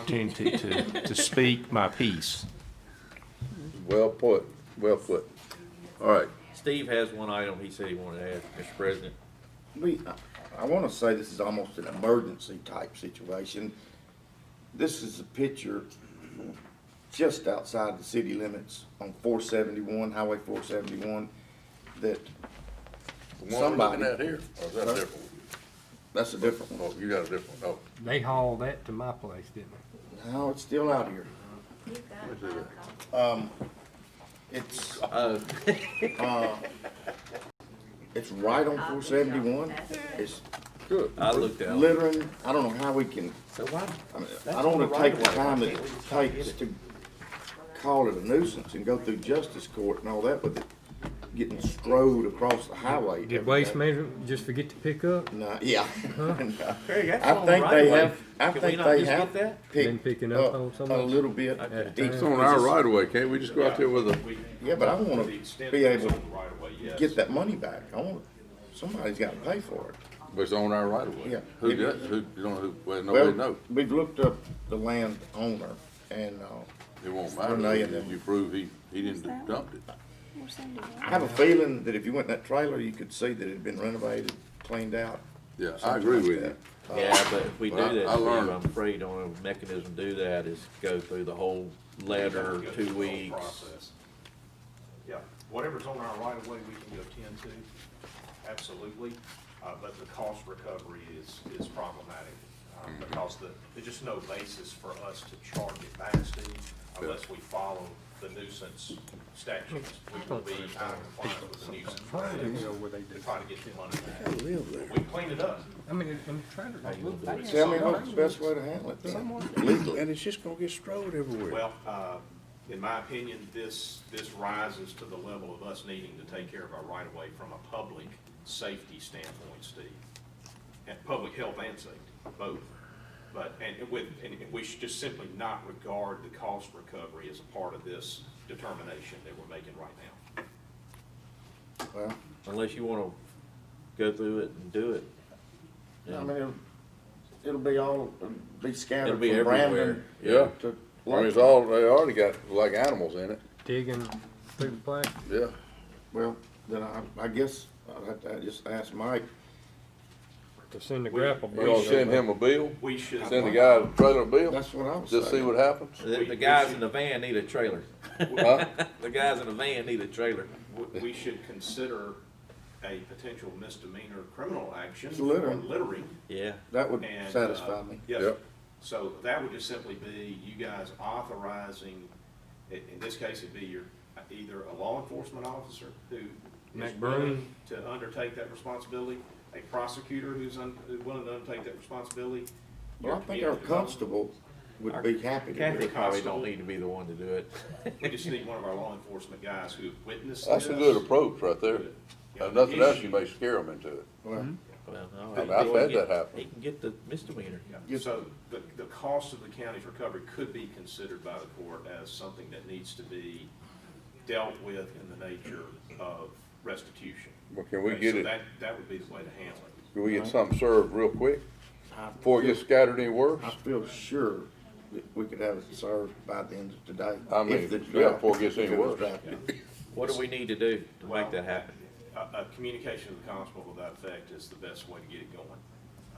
opportunity to, to speak my piece. Well put, well put. All right, Steve has one item he said he wanted to add, Mr. President. We, I- I want to say this is almost an emergency type situation. This is a picture just outside the city limits on four seventy-one, Highway four seventy-one, that, the one we're Somebody. looking at here, or is that a different one? that's a different one. Oh, you got a different one, They hauled that to my place, didn't No, it's still out here. You've got Which is my copy. it? Um, it's, Uh, uh, it's right on four seventy-one. It's oh, good. I looked at it. littering. I don't know how we can So why, I mean, That's I don't on the wanna right take the of way. time that it takes to call it a nuisance and go through justice court and all that with it getting strode across the highway. they? Did every Waste day. Management just forget to pick up? No, yeah. Craig, that's I on the think right they of way. have, I Can we think not they just get have that? Been picked picking up up on some a of it? little bit. At the each- It's on our right of way, can't we just go out there with a, Yeah, but I wanna be able to get that money back. I want, somebody's gotta pay for it. but it's on our right of way? Yeah. Who does, who, you don't, Oh, know who, well, Well, nobody knows. We've looked up the land owner and, uh, It won't Renee and matter, them. you prove he, he didn't dump it. I have a feeling that if you went in that trailer, you could see that it had been renovated, cleaned out. Yeah, I something agree like with that. you. Yeah, but if we do Well, I- that, I Steve, learned. I'm afraid the only mechanism to do that is go through the whole letter, two weeks. Process. Yeah, whatever's on our right of way, we can go ten to, absolutely, uh, but the cost recovery is, is problematic. um, Mm-hmm. Because the, there's just no basis for us to charge it back, Steve, unless we follow the nuisance statutes. We will be out of compliance with the nuisance statutes to try to get the money back. We clean it up. I mean, I'm trying to. Tell me what's the best way to handle it, then, legally. And it's just gonna get strode everywhere. Well, uh, in my opinion, this, this rises to the level of us needing to take care of our right-of-way from a public safety standpoint, Steve. And public health and safety, both. But, and with, and we should just simply not regard the cost recovery as a part of this determination that we're making right now. Well, Unless you wanna go through it and do it. I mean, it'll- it'll be all, it'll be It'll scattered be from everywhere. Brandon Yeah, to. I mean, it's all, they already got like animals in it, Digging through the plastic. yeah. Well, then I, I guess I'll have to just ask Mike, to send the grapple You gonna bait. send him a bill, We should. send the guy a trailer bill, that's what I was saying. just see what happens? The, the guys in the van need a trailer. Huh? The guys in the van need a trailer. we- we should consider a potential misdemeanor criminal action It's for littering. littering. Yeah. That would And, uh, satisfy me. Yes, Yep. so that would just simply be you guys authorizing, in, in this case, it'd be your, either a law enforcement officer who is McBroom. willing to undertake that responsibility, a prosecutor who's un, who's willing to undertake that responsibility. Well, I your think our community development- constable would be happy to do Kathy it. probably don't need to be the one to do it. We just need one of our law enforcement guys who have witnessed this. That's a good approach right there. Yeah, If nothing else, you issue- may scare them into it. Well, Well, all I've right. had that happen. He can get the misdemeanor. Yeah, So the, the cost of the county's recovery could be considered by the court as something that needs to be dealt with in the nature of restitution. Well, can we Okay, get so it- That, that would be the way to handle it. Can we get something served real quick I before it feel- gets scattered any worse? I feel sure that we could have it served by the end of today. I mean, if the yeah, draft- before it gets any if was worse. drafted. What do we need to do to make Well, that happen? A, a communication with the constable to that effect is the best way to get it going.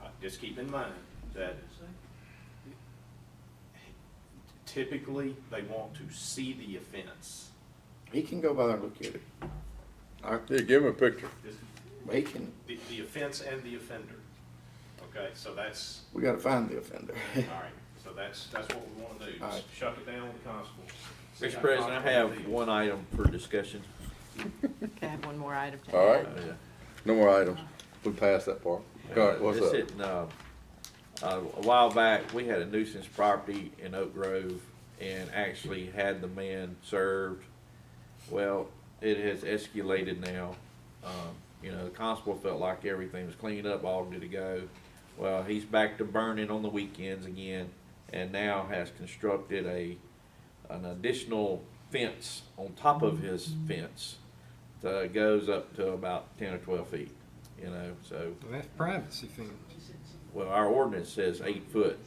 Uh, Just keep in mind that typically, they want to see the offense. He can go by there and look at it. I, Here, give him a picture. he can, the, the offense and the offender. Okay, so that's, we gotta find the offender. all right, so that's, that's what we wanna do, All right. just shut it down with the constable. Mr. President, I have one item for discussion. Okay, I have one more item to add. All right. Uh, No more items. We passed that part. All right, what's This up? isn't, uh, uh, a while back, we had a nuisance property in Oak Grove and actually had the man served. Well, it has escalated now. Um, you know, the constable felt like everything was cleaned up, all good to go. Well, he's back to burning on the weekends again and now has constructed a, an additional fence on top of his fence that goes up to about ten or twelve feet, you know, so That's privacy fence. well, our ordinance says eight foot.